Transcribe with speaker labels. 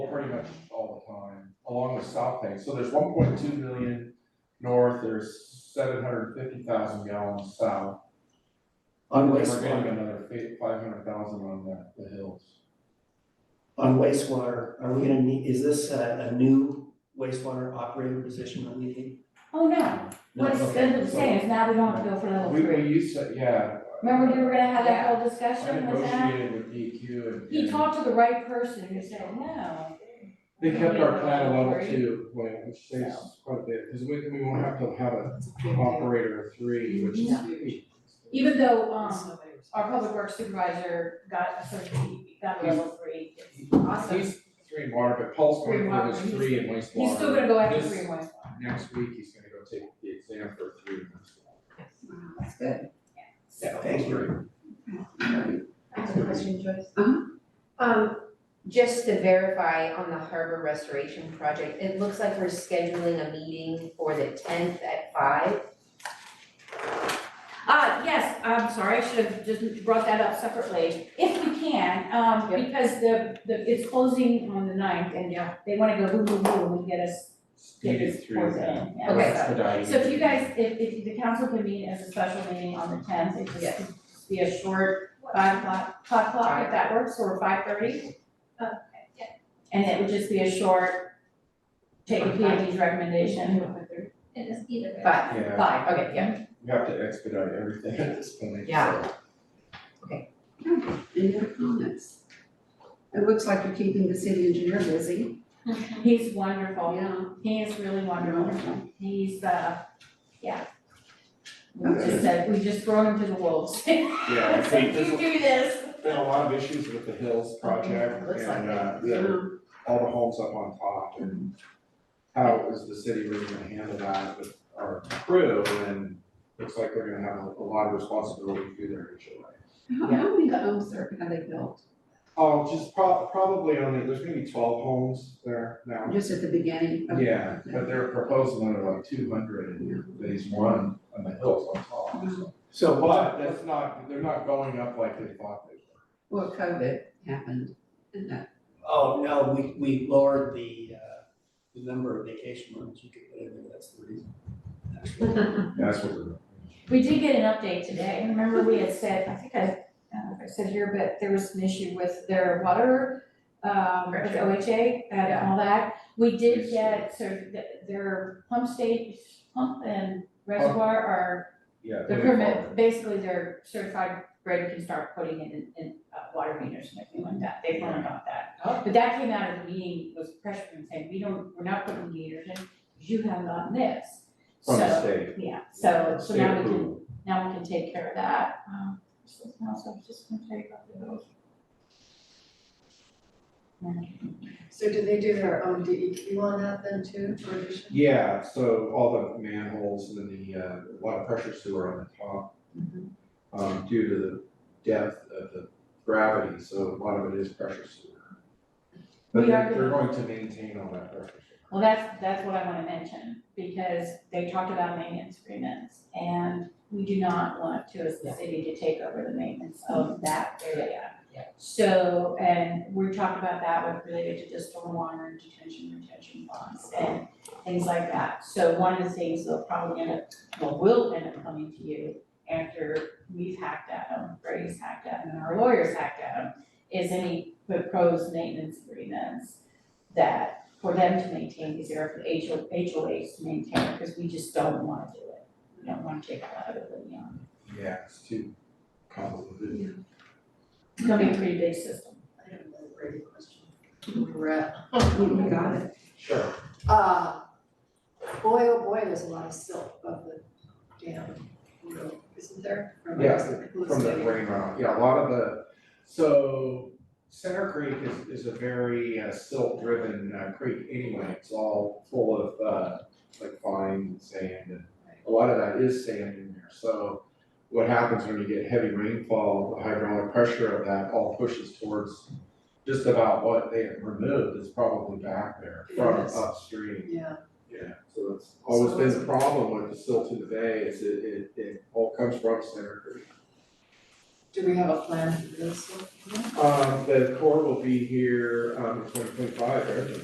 Speaker 1: damaged all the time along the south bank. So there's one point two million north, there's seven hundred fifty thousand gallons south.
Speaker 2: On
Speaker 1: And We're getting
Speaker 2: wastewater,
Speaker 1: another five hundred thousand on the, the hills.
Speaker 2: on wastewater, are we gonna need, is this a, a new wastewater operator position on the?
Speaker 3: Oh, no,
Speaker 2: No,
Speaker 3: what it's,
Speaker 2: okay.
Speaker 3: that's what I'm saying, is now we don't have to go for level
Speaker 1: We, we
Speaker 3: three.
Speaker 1: used to, yeah,
Speaker 3: Remember, we were gonna have that whole
Speaker 1: I
Speaker 3: discussion with that?
Speaker 1: negotiated with DQ and.
Speaker 3: He talked to the right person who said, no,
Speaker 1: They kept our plan at level
Speaker 3: Three.
Speaker 1: two, like, which saves quite a bit, cause we, we won't have to have a
Speaker 4: Operator.
Speaker 1: operator three, which is
Speaker 3: Yeah.
Speaker 1: huge.
Speaker 3: even though, um, our public works supervisor got a certain, got a level three. Awesome.
Speaker 1: He's three in water, but Paul's
Speaker 3: Three
Speaker 1: going
Speaker 3: water,
Speaker 1: for his
Speaker 3: he's-
Speaker 1: three in wastewater.
Speaker 3: He's still gonna go after
Speaker 1: This-
Speaker 3: three and wastewater.
Speaker 1: Next week, he's gonna go take the exam for three in wastewater.
Speaker 4: That's good.
Speaker 3: So,
Speaker 2: Thank you.
Speaker 5: That's a question, Joyce.
Speaker 4: Uh-huh.
Speaker 5: Um, just to verify on the harbor restoration project, it looks like we're scheduling a meeting for the tenth at five.
Speaker 3: Uh, yes, I'm sorry, I should have just brought that up separately, if we can, um,
Speaker 5: Yep.
Speaker 3: because the, the, it's closing on the ninth and
Speaker 5: Yeah.
Speaker 3: they wanna go boom, boom, boom and get us, get
Speaker 1: Needed
Speaker 3: this
Speaker 1: three
Speaker 3: poured
Speaker 1: of
Speaker 3: in.
Speaker 1: them.
Speaker 3: Yeah.
Speaker 5: Okay.
Speaker 1: That's the diet.
Speaker 3: So if you guys, if, if the council can meet as a special meeting on the tenth, it just
Speaker 5: Yes.
Speaker 3: could be a short five o'clock, five o'clock if that works, or five thirty. Okay,
Speaker 5: yeah.
Speaker 3: And it would just be a short, take a PMD's recommendation,
Speaker 6: It is either way.
Speaker 5: Five,
Speaker 1: Yeah,
Speaker 3: five,
Speaker 5: okay, yeah,
Speaker 1: we have to expedite everything at this point,
Speaker 5: Yeah.
Speaker 1: so.
Speaker 4: Any other comments? Oh, It looks like you're keeping the city engineer busy.
Speaker 3: he's wonderful.
Speaker 4: Yeah.
Speaker 3: He is really wonderful. He's, uh, yeah. We just
Speaker 4: Okay.
Speaker 3: said, we just throw him to the wolves.
Speaker 1: Yeah, I think
Speaker 3: You
Speaker 1: there's
Speaker 3: do this.
Speaker 1: been a lot of issues with the Hills project
Speaker 5: Looks like
Speaker 1: and,
Speaker 5: it.
Speaker 1: uh,
Speaker 4: Yeah.
Speaker 1: the, all the homes up on top and how it was the city really gonna handle that with our crew and looks like they're gonna have a lot of responsibility through their HOA.
Speaker 4: How, how many homes are, have they built?
Speaker 1: Oh, just prob- probably only, there's maybe twelve homes there now.
Speaker 4: Just at the beginning? of-
Speaker 1: Yeah, but they're proposing another like two hundred in phase one on the hills on top, so.
Speaker 2: So
Speaker 1: But that's not, they're not going up like they thought they were.
Speaker 4: Well, COVID happened and that,
Speaker 2: Oh, no, we, we lowered the, uh, the number of vacation rooms you could put in there, that's the reason.
Speaker 1: That's what they're.
Speaker 3: We did get an update today. Remember we had said, I think I, I don't know if I said here, but there was an issue with their water, um, with
Speaker 5: Pressure.
Speaker 3: OHA and
Speaker 5: Yeah.
Speaker 3: all that. We did
Speaker 1: Yes.
Speaker 3: get, so th- their pump state, pump and reservoir are
Speaker 1: Yeah.
Speaker 3: The
Speaker 1: they
Speaker 3: permit,
Speaker 1: follow.
Speaker 3: basically, they're certified, Greg can start putting it in, in uh, water meters and everything like that, they've learned about that.
Speaker 1: Oh.
Speaker 3: But that came out of the meeting, was pressure and saying, we don't, we're not putting meters in, you have gotten this.
Speaker 1: From the
Speaker 3: So,
Speaker 1: state.
Speaker 3: yeah, so, so
Speaker 1: State
Speaker 3: now we can,
Speaker 1: approval.
Speaker 3: now we can take care of that. Um, something else I was just gonna tell you about the bills.
Speaker 7: So do they do their own DEQ on that then too, for addition?
Speaker 1: Yeah, so all the manholes and then the, uh, a lot of pressure sewer on the top.
Speaker 3: Mm-hmm.
Speaker 1: Um, due to the depth of the gravity, so a lot of it is pressure sewer. But
Speaker 3: We are
Speaker 1: they're, they're going to maintain all that pressure sewer.
Speaker 3: Well, that's, that's what I wanna mention, because they talked about maintenance agreements, and we do not want to, as the city, to take over the maintenance of that area.
Speaker 5: Yeah.
Speaker 3: So, and we're talking about that with related to just stormwater and detention, retention bonds, and things like that. So one of the things that'll probably end up, well, will end up coming to you after we've hacked at them, Brady's hacked at them, and our lawyers hacked at them, is any proposed maintenance agreements that for them to maintain these areas, for HO, HOAs to maintain, because we just don't wanna do it. We don't wanna take a lot of um, it, you know,
Speaker 1: Yeah, it's too complicated.
Speaker 3: it's gonna be a pretty big system.
Speaker 7: I have another great question.
Speaker 4: you got it.
Speaker 1: Sure.
Speaker 7: Uh, boy, oh boy, there's a lot of silt above the dam, you know, isn't there? From the-
Speaker 1: Yeah,
Speaker 7: the
Speaker 1: From the
Speaker 7: stadium.
Speaker 1: rain runoff, yeah, a lot of the, so Center Creek is, is a very uh, silt-driven uh, creek anyway. It's all full of, uh, like fine and sand and a lot of that is sand in there. So what happens when you get heavy rainfall, the hydraulic pressure of that all pushes towards just about what they have removed is probably back there from
Speaker 7: Yes.
Speaker 1: upstream.
Speaker 7: Yeah,
Speaker 1: Yeah, so that's always
Speaker 7: So
Speaker 1: been the
Speaker 7: it's-
Speaker 1: problem with the silt to the bay is it, it, it all comes from Center Creek.
Speaker 7: do we have a plan for this one?
Speaker 1: Uh, Um, the core will be here, um, in twenty twenty-five, right?